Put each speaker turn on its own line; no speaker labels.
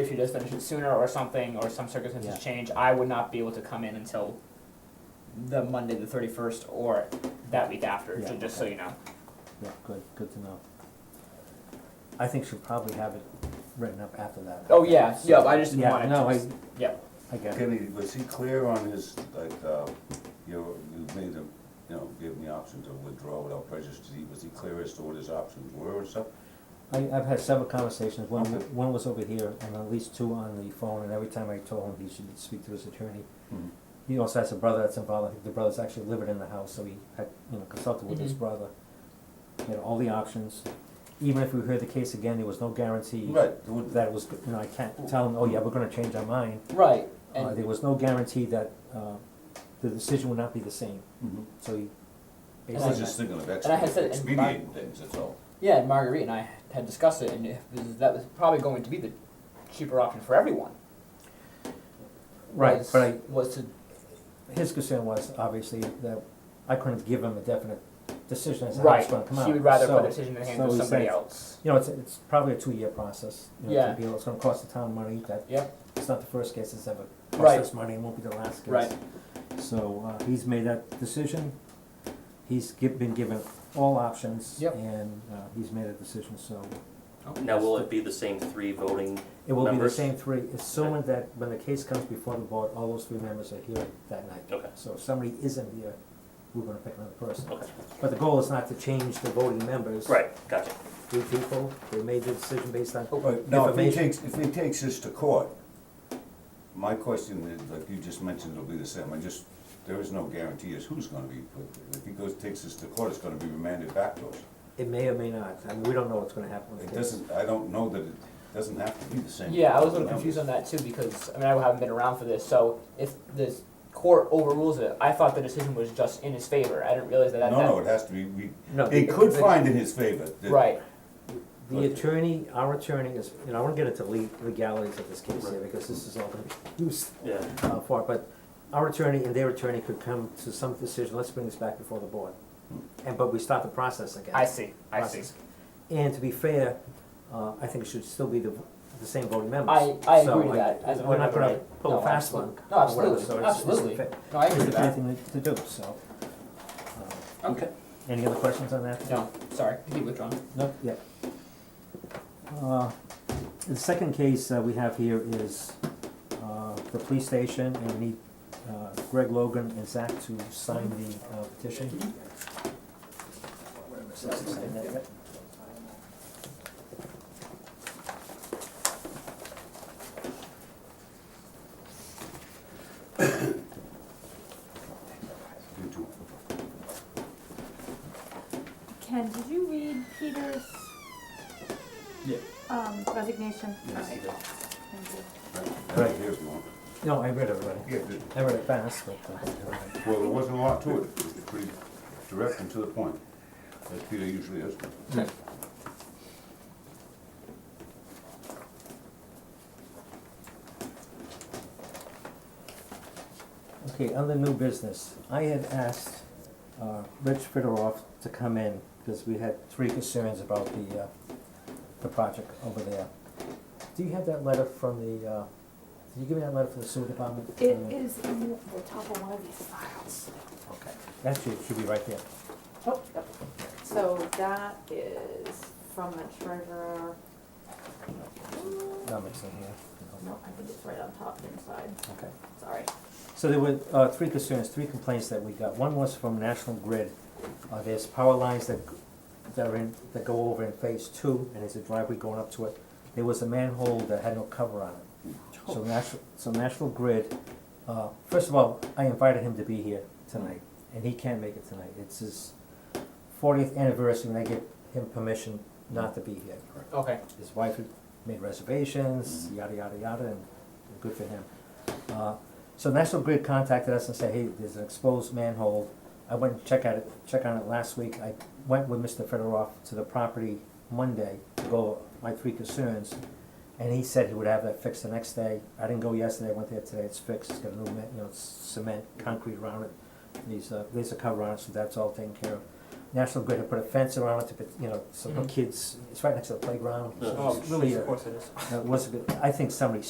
if she does finish it sooner or something, or some circumstances
Yeah.
change, I would not be able to come in until the Monday, the thirty first, or that week after. so
Yeah,
just so you know.
Yeah, good, good to know. I think she'll probably have it written up after that.
Oh yeah, yeah. I just didn't
Yeah,
want it.
no,
to
I,
just- yeah.
I get it.
Kenny, was he clear on his, like, uh, you, you made him, you know, gave him the option to withdraw without prejudice, Did he- was he clear as to what his options were and stuff?
I, I've had several conversations, one,
Okay.
one was over here, and at least two on the phone, and every time I told him he should speak to his attorney.
Mhm.
Mm-hmm.
He also has a brother that's involved, I think the brother's actually living in the house, so he had, you know, consulted with his
Mhm.
brother. He had all the options, even if we heard the case again, there was no guarantee
Right, there would-
that it was, good. you know, I can't tell him, oh yeah, we're gonna change our mind.
Right.
Uh, there was no guarantee that, uh, the decision would not be the same,
Mhm.
so he.
And
I was
basically-
just thinking of
I had said- mm-hmm. and
expediting things, that's all.
Yeah, and Marguerite and I had discussed it, and it was, that was probably going to be the cheaper option for everyone.
Right,
was,
but I,
was to
his concern was obviously that I couldn't give him a definite decision as to how
right.
it's gonna come out.
She would rather put
So,
the decision in the hands
so
of
he
somebody
said-
else.
You know, it's, it's probably a two-year process, you know,
Yeah.
it's gonna be, it's gonna cost the town money, that,
Yep.
it's not the first case that's ever
Right.
cost us money, it won't be the last case.
Right.
So, uh, he's made that decision, he's gi- been given all options,
Yep.
and, uh, he's made a decision, so
Now, will it be the same three voting?
it will be the
Members?
same three, assuming that when the case comes before the board, all those three members are here that night.
Okay.
So if somebody isn't here, we're gonna pick another person.
Okay,
But the goal is not to change the voting members.
right, gotcha.
Three people, they made the decision based on,
Oh,
But now, if he
Information.
takes, if he takes this to court, my question is, like you just mentioned, it'll be the same, I just, there is no guarantee as who's gonna be put, if he goes, takes this to court, it's gonna be remanded back to us.
it may or may not, I mean, we don't know what's gonna happen. with
It
the-
doesn't, I don't know that it doesn't have to be the same.
Yeah, I was a little confused on that too because I mean I haven't been around for this. So if the court overrules it, I thought the decision was just in his favor. I didn't realize that.
No,
that
no, it has to be, we,
No.
it could find in his favor. that-
Right.
The attorney, our attorney is, and I won't get into le- legalities of this case here, because this is all gonna be used
Yeah,
uh, for, it, but our attorney and their attorney could come to some decision, let's bring this back before the board.
Hmm.
And, but we start the process again.
I see. I see.
Process. And to be fair, uh, I think it should still be the, the same voting members.
I, I
So
agree with
I-
that. As a
We're not
member,
gonna
right?
pull
No,
a fast
absolute-
one.
No,
or whatever,
absolutely,
so it's- it's
absolutely.
fair.
No, I agree with
There's
that.
anything to do, so. uh,
Okay.
Any other questions on that?
No, sorry. Keep withdrawn.
No. Yeah. Uh, The second case uh, we have here is uh, the police station, and we need uh, Greg Logan and Zach to sign the uh, petition. Sign that, yep.
You too.
Ken, did you read Peter's?
Yeah.
Um, resignation?
Yes, you did.
Thank you.
Right, here's one.
No, I read everybody.
Yeah, good.
I read it fast, but. uh,
Well, there wasn't a lot to it, it was pretty direct and to the point, as Peter usually is.
Okay, on the new business, I had asked uh, Rich Fedorov to come in, because we had three concerns about the, uh, the project over there. Do you have that letter from the, uh, did you give me that letter from the sewer department?
It
Uh,
is in the top of one of these files.
Okay, actually, it should be right there.
Oh, yep. So that is from the treasurer.
No, it's in here. No.
No, I think it's right on top inside,
Okay.
sorry.
So there were uh, three concerns, three complaints that we got. One was from National Grid. Uh, There's power lines that, g- that are in, that go over in phase two, and there's a driveway going up to it. There was a manhole that had no cover on it. So National, so National Grid, uh, first of all, I invited him to be here tonight, and he can't make it tonight. It's his fortieth anniversary, and I gave him permission not to be here
Okay.
his wife had made reservations, yada, yada, yada, and good for him. Uh, So National Grid contacted us and said, hey, there's an exposed manhole. I went and checked out it, checked on it last week. I went with Mr. Fedorov to the property Monday to go over my three concerns. And he said he would have that fixed the next day. I didn't go yesterday, I went there today, it's fixed, it's got a new, ma- you know, it's cement, concrete around it. There's a, there's a cover on it, so that's all taken care of. National Grid had put a fence around it to, put- you know, so no
Mhm.
kids, it's right next to the playground. so
Yeah.
it's Really,
Of
uh,
course it is.
it was a bit, I think somebody